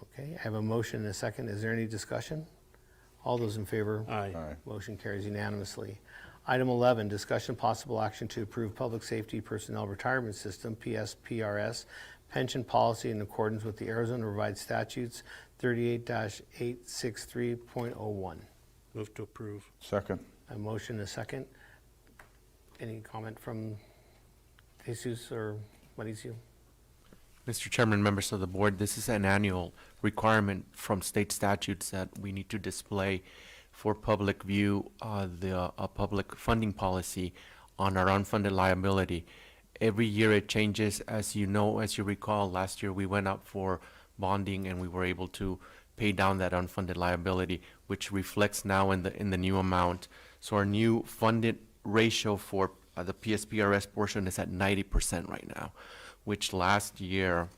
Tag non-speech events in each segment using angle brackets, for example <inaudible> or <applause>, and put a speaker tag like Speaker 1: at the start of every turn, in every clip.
Speaker 1: Okay, I have a motion and a second. Is there any discussion? All those in favor?
Speaker 2: Aye.
Speaker 3: Aye.
Speaker 1: Motion carries unanimously. Item 11, discussion possible action to approve Public Safety Personnel Retirement System, PSPRS, pension policy in accordance with the Arizona Revised Statutes 38-863.01.
Speaker 2: Move to approve.
Speaker 3: Second.
Speaker 1: A motion and a second. Any comment from Jesus or Mauricio?
Speaker 4: Mr. Chairman, members of the board, this is an annual requirement from state statutes that we need to display for public view, uh, the, uh, public funding policy on our unfunded liability. Every year it changes. As you know, as you recall, last year we went up for bonding and we were able to pay down that unfunded liability, which reflects now in the, in the new amount. So our new funded ratio for uh, the PSPRS portion is at ninety percent right now, which last year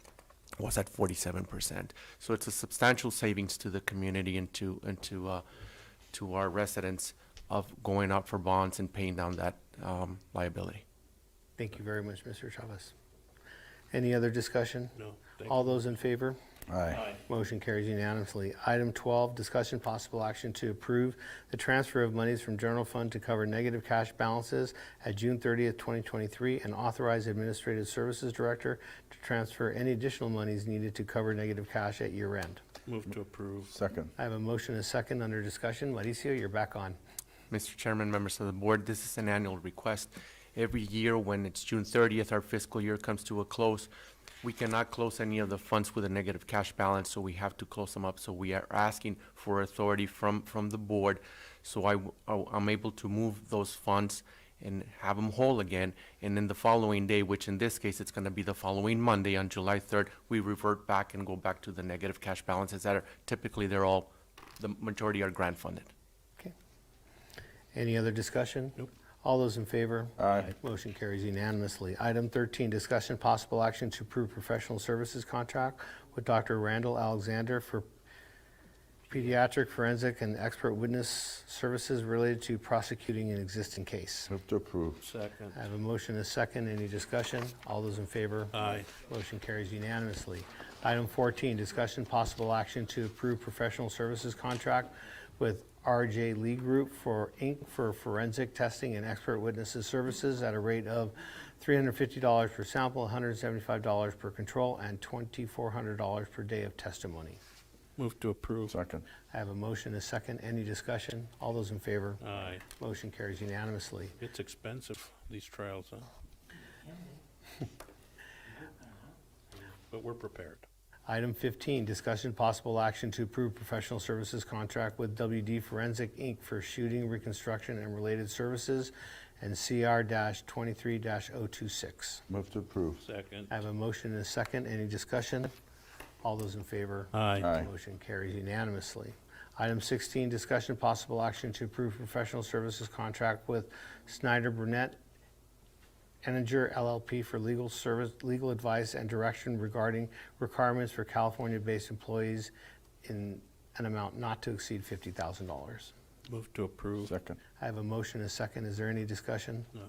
Speaker 4: was at forty-seven percent. So it's a substantial savings to the community and to, and to, uh, to our residents of going out for bonds and paying down that, um, liability.
Speaker 1: Thank you very much, Mr. Chavez. Any other discussion?
Speaker 2: No, thank
Speaker 1: All those in favor?
Speaker 3: Aye.
Speaker 1: Motion carries unanimously. Item 12, discussion possible action to approve the transfer of monies from general fund to cover negative cash balances at June 30th, 2023, and authorize Administrative Services Director to transfer any additional monies needed to cover negative cash at year end.
Speaker 2: Move to approve.
Speaker 3: Second.
Speaker 1: I have a motion and a second under discussion. Mauricio, you're back on.
Speaker 4: Mr. Chairman, members of the board, this is an annual request. Every year, when it's June thirtieth, our fiscal year comes to a close, we cannot close any of the funds with a negative cash balance, so we have to close them up. So we are asking for authority from, from the board, so I, w- I- I'm able to move those funds and have them whole again. And then the following day, which in this case, it's gonna be the following Monday on July third, we revert back and go back to the negative cash balances that are, typically, they're all, the majority are grant funded.
Speaker 1: Okay. Any other discussion?
Speaker 2: Nope.
Speaker 1: All those in favor?
Speaker 3: Aye.
Speaker 1: Motion carries unanimously. Item 13, discussion possible action to approve professional services contract with Dr. Randall Alexander for pediatric forensic and expert witness services related to prosecuting an existing case.
Speaker 3: Move to approve.
Speaker 2: Second.
Speaker 1: I have a motion and a second. Any discussion? All those in favor?
Speaker 2: Aye.
Speaker 1: Motion carries unanimously. Item 14, discussion possible action to approve professional services contract with RJ Lee Group for Inc. for forensic testing and expert witnesses services at a rate of $350 per sample, $175 per control, and $2,400 per day of testimony.
Speaker 2: Move to approve.
Speaker 3: Second.
Speaker 1: I have a motion and a second. Any discussion? All those in favor?
Speaker 2: Aye.
Speaker 1: Motion carries unanimously.
Speaker 2: It's expensive, these trials, huh? <laughs> But we're prepared.
Speaker 1: Item 15, discussion possible action to approve professional services contract with WD Forensic Inc. for shooting reconstruction and related services and CR-23-026.
Speaker 3: Move to approve.
Speaker 2: Second.
Speaker 1: I have a motion and a second. Any discussion? All those in favor?
Speaker 2: Aye.
Speaker 3: Aye.
Speaker 1: Motion carries unanimously. Item 16, discussion possible action to approve professional services contract with Snyder Burnett Eniger LLP for legal service, legal advice and direction regarding requirements for California-based employees in an amount not to exceed $50,000.
Speaker 2: Move to approve.
Speaker 3: Second.
Speaker 1: I have a motion and a second. Is there any discussion?
Speaker 2: No.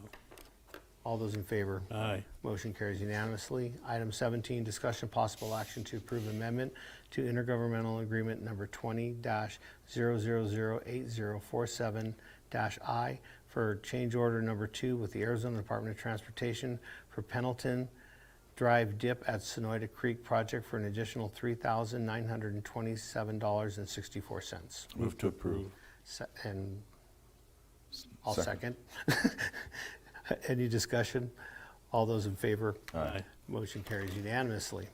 Speaker 1: All those in favor?
Speaker 2: Aye.
Speaker 1: Motion carries unanimously. Item 17, discussion possible action to approve amendment to intergovernmental agreement number 20-0008047-I for change order number two with the Arizona Department of Transportation for Pendleton Drive Dip at Sonoyta Creek Project for an additional $3,927.64.
Speaker 2: Move to approve.
Speaker 1: Se- And I'll second. <laughs>
Speaker 3: Second.
Speaker 1: Any discussion? All those in favor?
Speaker 2: Aye.
Speaker 1: Motion carries unanimously.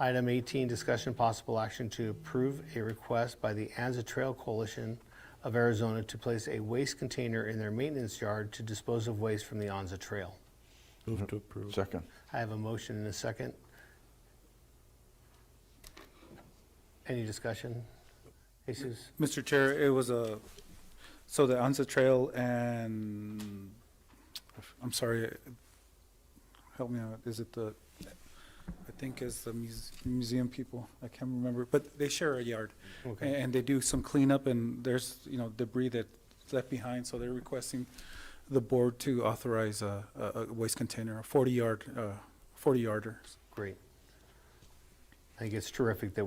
Speaker 1: Item 18, discussion possible action to approve a request by the Anza Trail Coalition of Arizona to place a waste container in their maintenance yard to dispose of waste from the Anza Trail.
Speaker 2: Move to approve.
Speaker 3: Second.
Speaker 1: I have a motion and a second. Any discussion? Jesus?
Speaker 5: Mr. Chair, it was a, so the Anza Trail and, I'm sorry, help me out, is it the, I think it's the muse- museum people, I can't remember, but they share a yard. a-
Speaker 1: Okay.
Speaker 5: And they do some cleanup and there's, you know, debris that's left behind, so they're requesting the board to authorize a, a a waste container, a forty yard, uh, forty yarder.
Speaker 1: Great. I think it's terrific that we're